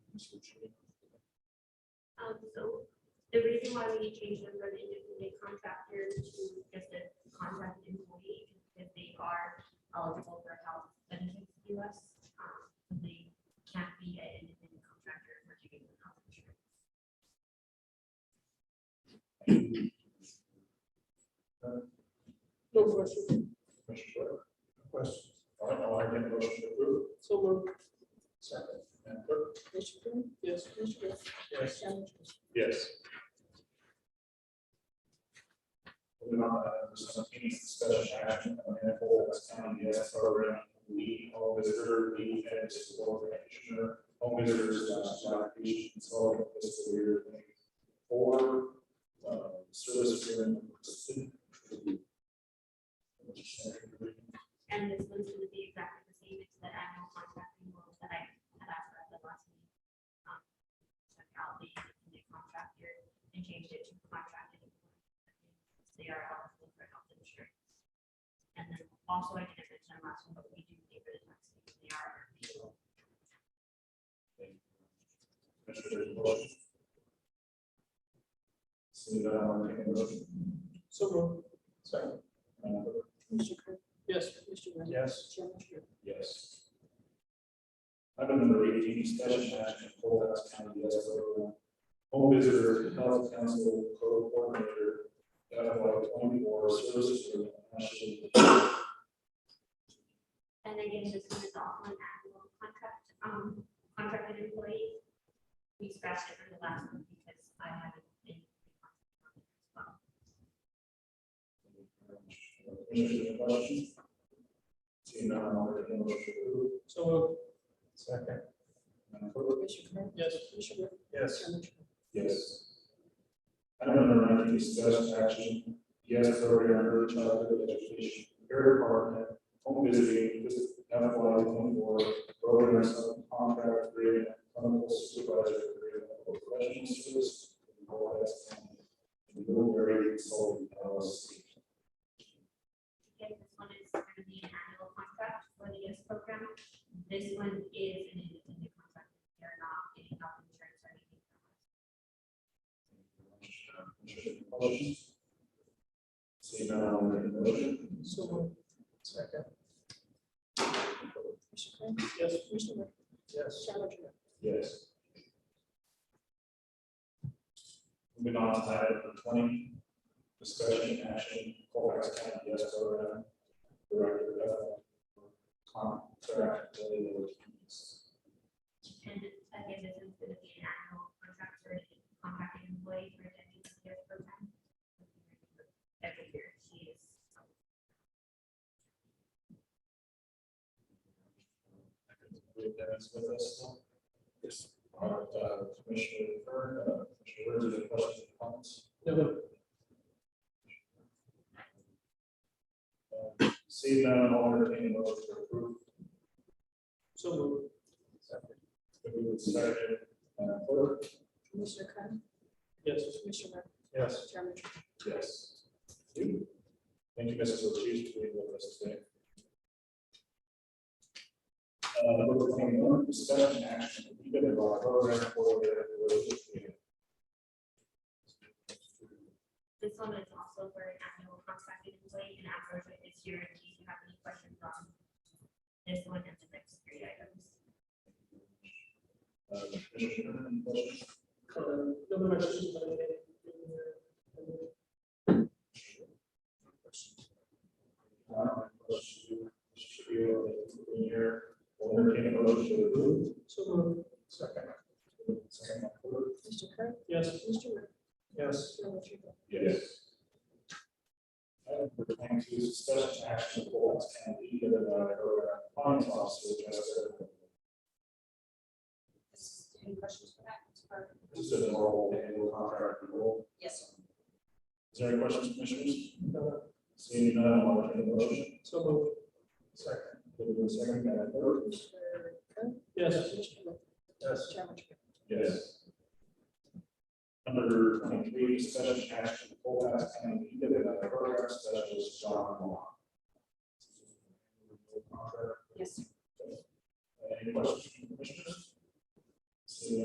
Um, so the reason why we changed them from independent contractor to just a contract employee is because they are eligible for health benefits through us. Um, They can't be an independent contractor for taking the health insurance. Uh, No questions. Commissioner Schiller, questions? All right, I'll entertain a motion to approve. So moved. Second. And clerk? Commissioner Green? Yes. Commissioner West? Yes. Challenge. Yes. Moving on, uh, this is any discussion action on the whole West County S program, we all visitor, we and this is all commissioner, all visitors, uh, applications, all of this year. Or, uh, service agreement. And this one's gonna be exactly the same, it's the annual contracting rules that I had asked at the last meeting. Um, Took out the independent contractor and changed it to contracted. employee. They are eligible for health insurance. And then also I didn't mention last one, but we do pay for the taxes, they are our people. Commissioner, motion. See, uh, I'll entertain a motion. So moved. Second. Uh, Commissioner Green? Yes. Commissioner West? Yes. Challenge. Yes. Item number eighteen, discussion action, Cole House County, yes, program. Home visitor, health council, code coordinator, F Y twenty-four services for national. And again, this one is also an annual contract, um, contracted employee. We scratched it from the last one because I haven't been. Commissioners, questions? Seeing none, I'll entertain a motion to approve. So moved. Second. Commissioner Green? Yes. Commissioner West? Yes. Challenge. Yes. Item number nineteen, discuss action, yes, program, early childhood education, air department, home visiting, this is FY twenty-four, program subcontract agreement, clinical supervisor agreement, or professional service, and all that's on the military consulting policy. Again, this one is going to be an annual contract for the yes program. This one is an independent contract. They're not getting health insurance or anything. from us. Motions? Seeing none, I'll make a motion. So moved. Second. Commissioner Green? Yes. Commissioner West? Yes. Challenge. Yes. Moving on to item number twenty, discussion and action, Colfax County yes program. Director of contract related committees. And again, this is going to be an annual contract for a contracted employee for the yes program. Every year she is. Believe that is with us still. Yes. All right, uh, Commissioner Kern, uh, Commissioner Woods, any questions or comments? No. Uh, Seeing none, all entertaining motion to approve So moved. If we would start it, uh, clerk? Commissioner Green? Yes. Commissioner West? Yes. Challenge. Yes. Thank you, Mrs. Ortiz, for being with us today. Uh, number twenty-one, discussion action, we did a lot of program for the relationship. This one is also for an annual contracted employee and after this year, in case you have any questions on this one and the next three items. Uh, Commissioner, any questions? Uh, No questions. Uh, questions? Should be in here, or entertain a motion to approve. So moved. Second. Second, clerk? Commissioner Green? Yes. Commissioner West? Yes. Challenge. Yes. Item number twenty-two, discussion action of Bulldogs County, either the compliance officer, just Any questions for that? Or- this is an oral annual contract renewal. Yes, sir. Is there any questions, commissioners? Seeing none, I'll entertain a motion. So moved. Second. Move to second, Madam Clerk. Commissioner Green? Commissioner West? Yes. Challenge. Yes. Number twenty-three, discussion action of Bulldogs County, either the program specialist, John Long. Contract yes, sir. Uh, Any questions, from commissioners?